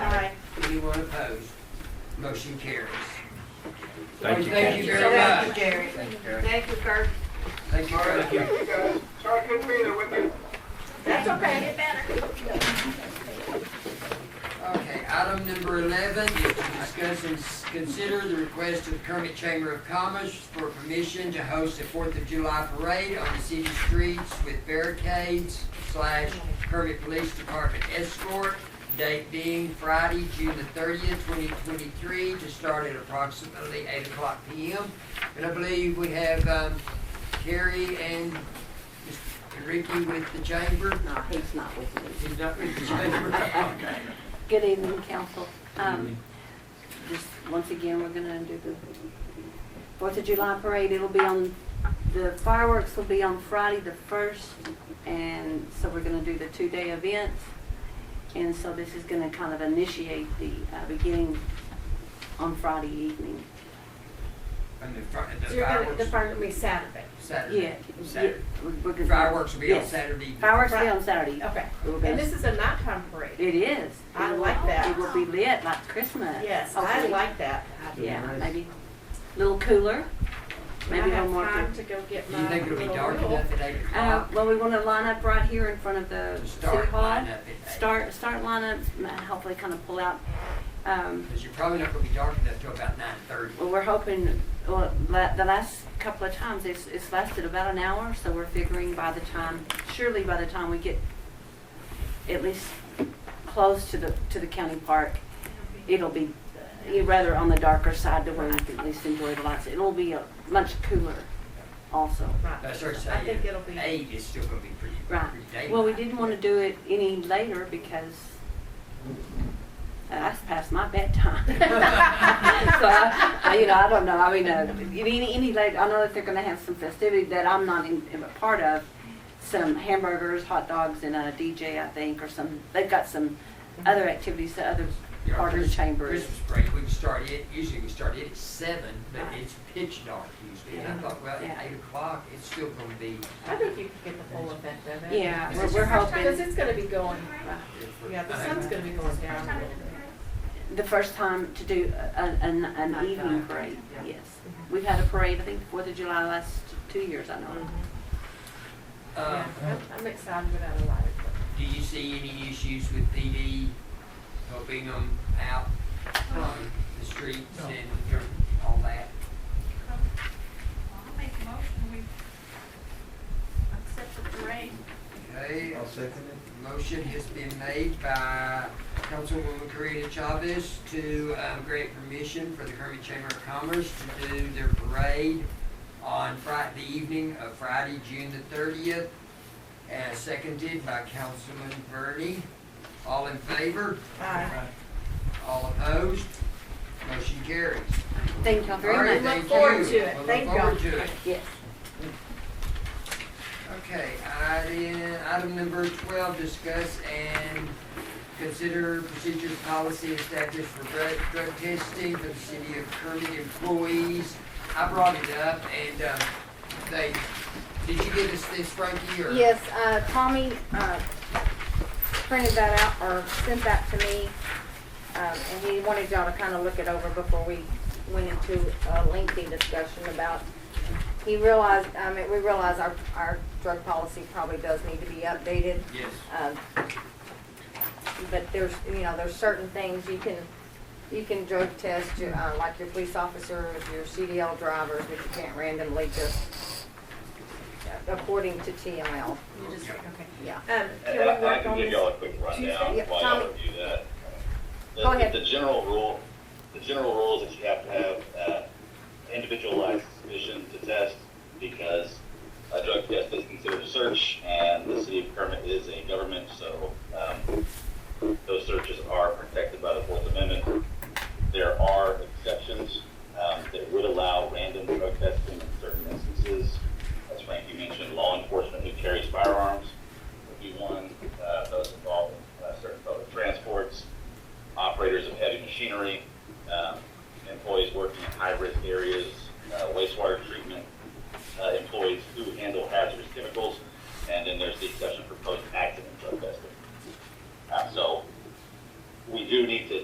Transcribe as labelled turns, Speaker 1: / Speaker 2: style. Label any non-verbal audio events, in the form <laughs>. Speaker 1: Anyone opposed? Motion carries.
Speaker 2: Thank you,
Speaker 1: Thank you
Speaker 2: Ken.
Speaker 1: very
Speaker 3: Thank you,
Speaker 1: much.
Speaker 3: Gary.
Speaker 1: Thank you, Karen.
Speaker 3: Thank you, Kurt.
Speaker 1: Thank you, Karen.
Speaker 4: Sorry, I couldn't be there with you.
Speaker 3: That's okay. Get better.
Speaker 1: Okay, item number eleven is to discuss and s- consider the request of Kermit Chamber of Commerce for permission to host a Fourth of July parade on the city streets with barricades slash Kermit Police Department escort, date being Friday, June the thirtieth, twenty twenty-three, to start at approximately eight o'clock P M. And I believe we have, um, Carrie and Mr. Ricky with the chamber.
Speaker 5: No, he's not with me.
Speaker 1: He's not with the chamber. Okay.
Speaker 5: Good evening, council. Um, Just, once again, we're gonna do the Fourth of July parade. It'll be on, the fireworks will be on Friday the first, and so we're gonna do the two-day event. And so this is gonna kind of initiate the uh, beginning on Friday evening.
Speaker 1: <laughs> And the fri- the
Speaker 3: So you're gonna, the
Speaker 1: fireworks,
Speaker 3: fire will be Saturday.
Speaker 5: Yeah.
Speaker 1: Saturday.
Speaker 5: yeah,
Speaker 1: Saturday.
Speaker 5: we're- we're gonna-
Speaker 1: Fireworks will be on
Speaker 5: Yes.
Speaker 1: Saturday.
Speaker 5: Fireworks will be on Saturday.
Speaker 3: Okay.
Speaker 5: We're
Speaker 3: And
Speaker 5: gonna-
Speaker 3: this is a nighttime parade.
Speaker 5: It is.
Speaker 3: I
Speaker 5: It will-
Speaker 3: like that.
Speaker 5: It will be lit like Christmas.
Speaker 3: Yes, I
Speaker 5: hopefully.
Speaker 3: like that.
Speaker 5: Yeah, maybe a little cooler,
Speaker 3: Maybe I
Speaker 5: maybe a little
Speaker 3: have
Speaker 5: more.
Speaker 3: time
Speaker 5: good-
Speaker 3: to go get
Speaker 1: Do
Speaker 3: my.
Speaker 1: you think it'll be
Speaker 3: little
Speaker 1: dark
Speaker 3: rule.
Speaker 1: enough at eight
Speaker 5: Uh,
Speaker 1: o'clock
Speaker 5: well, we want to line up right here in front of the
Speaker 1: to
Speaker 5: city
Speaker 1: start
Speaker 5: hall.
Speaker 1: lineup at eight?
Speaker 5: Start, start lineup, and hopefully kind of pull out. Um,
Speaker 1: Because you're probably not gonna be dark enough till about nine thirty.
Speaker 5: well, we're hoping, well, la- the last couple of times, it's, it's lasted about an hour, so we're figuring by the time, surely by the time we get at least close to the, to the county park, it'll be, uh, rather on the darker side to where we can at least enjoy the lights. It'll be uh, much cooler also.
Speaker 3: Right.
Speaker 1: I started
Speaker 3: I think it'll
Speaker 1: saying,
Speaker 3: be-
Speaker 1: eight is still gonna be pretty,
Speaker 5: Right.
Speaker 1: pretty daylight.
Speaker 5: Well, we didn't want to do it any later because that's past my bedtime. <laughs> So, I, I- you know, I don't know, I mean, uh, any, any late, I know that they're gonna have some festivity that I'm not in, in a part of. Some hamburgers, hot dogs, and a DJ, I think, or some, they've got some other activities, the other
Speaker 1: You know,
Speaker 5: part of the
Speaker 1: Christ-
Speaker 5: chamber is.
Speaker 1: Christmas break, we can start it, usually we start it at seven, but
Speaker 5: Right.
Speaker 1: it's pitch dark usually. And I
Speaker 5: Yeah.
Speaker 1: thought, well,
Speaker 5: Yeah.
Speaker 1: at eight o'clock, it's still gonna be.
Speaker 3: I think you could get the full effect of it.
Speaker 5: Yeah,
Speaker 1: Is
Speaker 5: we're,
Speaker 1: this
Speaker 5: we're
Speaker 1: your first
Speaker 3: Because
Speaker 5: hoping,
Speaker 3: it's gonna be going,
Speaker 5: right.
Speaker 3: yeah, the sun's gonna be going down
Speaker 1: Uh,
Speaker 3: a little bit.
Speaker 5: the first time to do a- a- an, an evening parade, yes. We've had a parade, I think, the Fourth of July last two years, I know.
Speaker 1: Uh,
Speaker 3: Yeah, I'm I'm excited about a lot of it.
Speaker 1: do you see any issues with PD helping them out on the streets and all that?
Speaker 6: I'll make a motion, we accept the parade.
Speaker 1: Okay. I'll second it. Motion has been made by Councilwoman Karina Chavez to um, grant permission for the Kermit Chamber of Commerce to do their parade on Friday, the evening of Friday, June the thirtieth, as seconded by Councilman Bernie. All in favor?
Speaker 3: Aye.
Speaker 1: All opposed? Motion carries.
Speaker 5: Thank y'all
Speaker 1: All
Speaker 5: very
Speaker 1: right,
Speaker 5: much.
Speaker 3: Look
Speaker 1: thank
Speaker 3: forward
Speaker 1: you.
Speaker 3: to it.
Speaker 1: We'll
Speaker 3: Thank
Speaker 1: Look forward
Speaker 3: y'all.
Speaker 1: to it.
Speaker 5: Yes.
Speaker 1: Okay, item, item number twelve, discuss and consider procedures, policy established for drug, drug testing for the city of Kermit employees. I brought it up and, um, they, did you give us this Frankie or?
Speaker 7: Yes, uh, Tommy, uh, printed that out or sent that to me. Um, and he wanted y'all to kind of look it over before we went into a lengthy discussion about, he realized, um, we realized our, our drug policy probably does need to be updated.
Speaker 1: Yes.
Speaker 7: Um, But there's, you know, there's certain things you can, you can drug test, your, uh, like your police officers, your CDL drivers, but you can't randomly just, according to TML,
Speaker 3: You just, okay.
Speaker 7: yeah.
Speaker 3: Um,
Speaker 4: And
Speaker 3: can
Speaker 4: and I
Speaker 3: we
Speaker 4: and I
Speaker 3: work
Speaker 4: can
Speaker 3: on
Speaker 4: give
Speaker 3: this?
Speaker 4: y'all a quick rundown
Speaker 7: Tuesday?
Speaker 4: while
Speaker 7: Tommy.
Speaker 4: y'all review that. The-
Speaker 7: Go ahead.
Speaker 4: The general rule, the general rule is that you have to have uh, individualized vision to test because a drug test is considered a search and the city of Kermit is a government, so um, those searches are protected by the Fourth Amendment. There are exceptions um, that would allow random drug testing in certain instances. As Frankie mentioned, law enforcement who carries firearms would be one, uh, those involved in uh, certain public transports, operators of heavy machinery, um, employees working in high-risk areas, uh, wastewater treatment, uh, employees who handle hazardous chemicals, and then there's the exception for post-accident drug testing. Uh, So we do need to